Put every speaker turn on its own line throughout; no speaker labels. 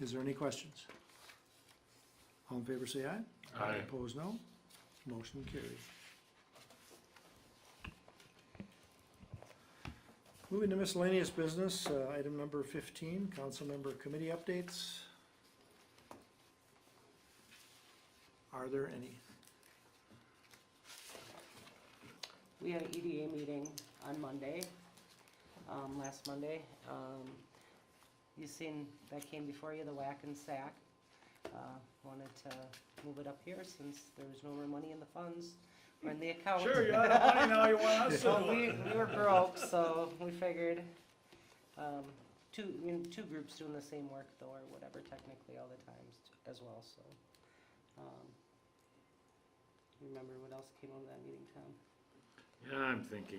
Is there any questions? All in favor, say aye.
Aye.
Opposed, no. Motion carried. Moving to miscellaneous business, uh, item number fifteen, council member committee updates. Are there any?
We had an EDA meeting on Monday, um, last Monday. Um, you seen, that came before you, the whack and sack. Uh, wanted to move it up here since there was no more money in the funds or in the account.
Sure, you're out of money now, you want us to
So
do
we,
it.
we were broke, so we figured, um, two, I mean, two groups doing the same work though, or whatever technically all the times t- as well, so. um, Remember what else came out of that meeting, Tom?
Yeah, I'm thinking.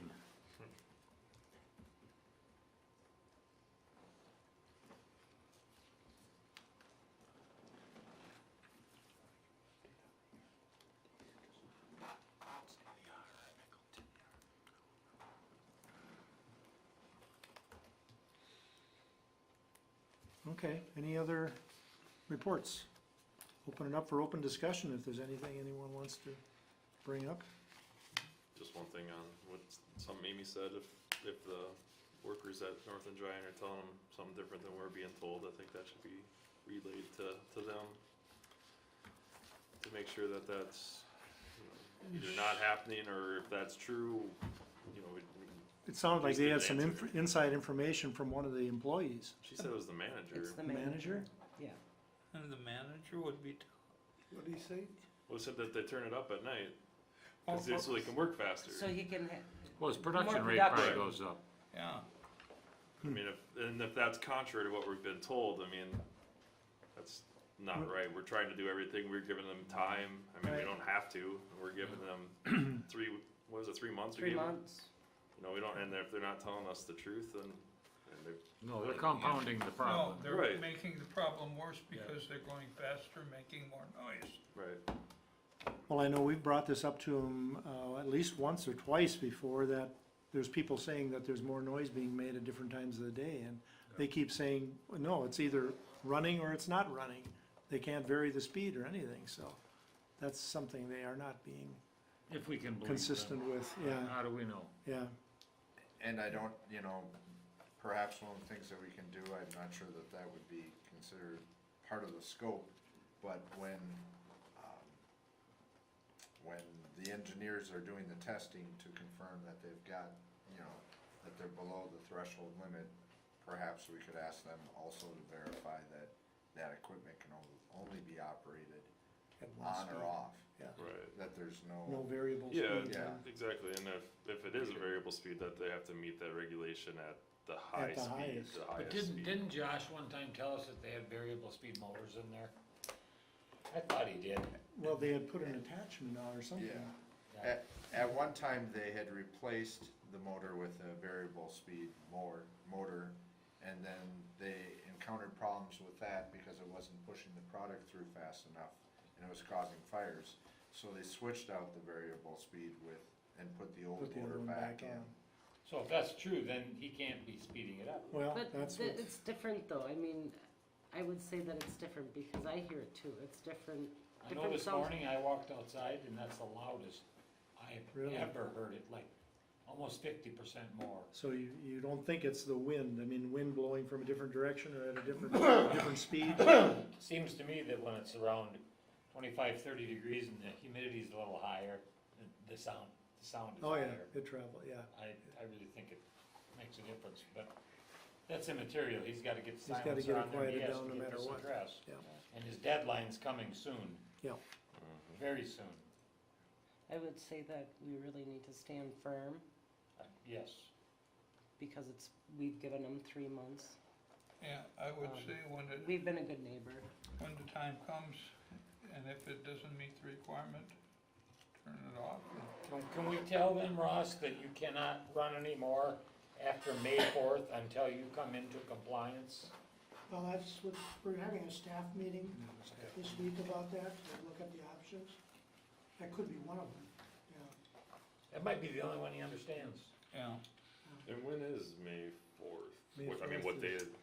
Okay, any other reports? Open it up for open discussion if there's anything anyone wants to bring up.
Just one thing on what something Amy said, if, if the workers at North and Giant are telling them something different than we're being told, I think that should be relayed to, to them. To make sure that that's, you know, either not happening, or if that's true, you know, we-
It sounded like
Just
they
didn't
had some
answer.
inf- inside information from one of the employees.
she said it was the
It's
manager.
the
Manager?
manager. Yeah,
And the manager would be.
What do you say?
Well, it said that they turn it up at night,
Oh,
'cause they- so they can work faster.
so he can, ha-
Well, his production
More
rate probably
production.
goes up.
Yeah.
I mean, if, and if that's contrary to what we've been told, I mean, that's not right. We're trying to do everything. We're giving them time. I mean, we
Right.
don't have to. We're giving them three, what was it, three months? we
three
gave them?
months,
You know, we don't, and if they're not telling us the truth, then, and they,
No, they're compounding the
No,
problem.
they're
Right.
making the problem worse because they're going faster, making more noise.
right.
Well, I know we've brought this up to them, uh, at least once or twice before that there's people saying that there's more noise being made at different times of the day and they keep saying, no, it's either running or it's not running. They can't vary the speed or anything, so that's something they are not being
If we can believe them.
consistent with, yeah,
How do we know?
yeah.
And I don't, you know, perhaps one of the things that we can do, I'm not sure that that would be considered part of the scope, but when, um, when the engineers are doing the testing to confirm that they've got, you know, that they're below the threshold limit, perhaps we could ask them also to verify that that equipment can on- only be operated
at one
on or
speed.
off,
Yeah,
Right.
that there's
no variable speed.
Yeah,
Yeah.
exactly. And if, if it is a variable speed, that they have to meet that regulation at the high
the
speed,
highest.
the
But
highest
didn't,
speed.
didn't Josh one time tell us that they had variable speed motors in there? I thought he did.
Well, they had put an attachment on or something.
Yeah. At, at one time, they had replaced the motor with a variable speed mower, motor, and then they encountered problems with that because it wasn't pushing the product through fast enough, and it was causing fires. So they switched out the variable speed with, and put the old
Put the other
motor
one back
back in.
on.
So if that's true, then he can't be speeding it up.
Well,
but
that's
th-
what,
it's different though, I mean, I would say that it's different because I hear it too, it's different.
I know
different
this
sounds.
morning I walked outside and that's the loudest I've
Really?
ever heard it, like almost fifty percent more.
so you, you don't think it's the wind, I mean, wind blowing from a different direction or at a different, different speed?
Seems to me that when it's around 25, 30 degrees and the humidity's a little higher, the- the sound, the sound is
Oh, yeah,
higher.
it travel, yeah.
I, I really think it makes a difference, but that's immaterial, he's gotta get
He's gotta
silencer
get it
on there, and he
quieted
has
down no
to get
matter
this
what.
addressed.
Yeah.
And his deadline's coming soon. Mm-hmm.
Yeah.
Very soon,
I would say that we really need to stand firm
Uh, yes.
because it's, we've given them three months.
Yeah, I would
Um,
say when the,
We've been a good neighbor.
when the time comes, and if it doesn't meet the requirement, turn it off.
Can, can we tell them, Ross, that you cannot run anymore after May fourth until you come into compliance?
Well, that's what, we're having a staff meeting this week about that, to look at the options. That could be one of them, yeah.
That might be the only one he understands.
Yeah,
And when is May fourth?
May
What, I mean,
4th
what day,
is-
is-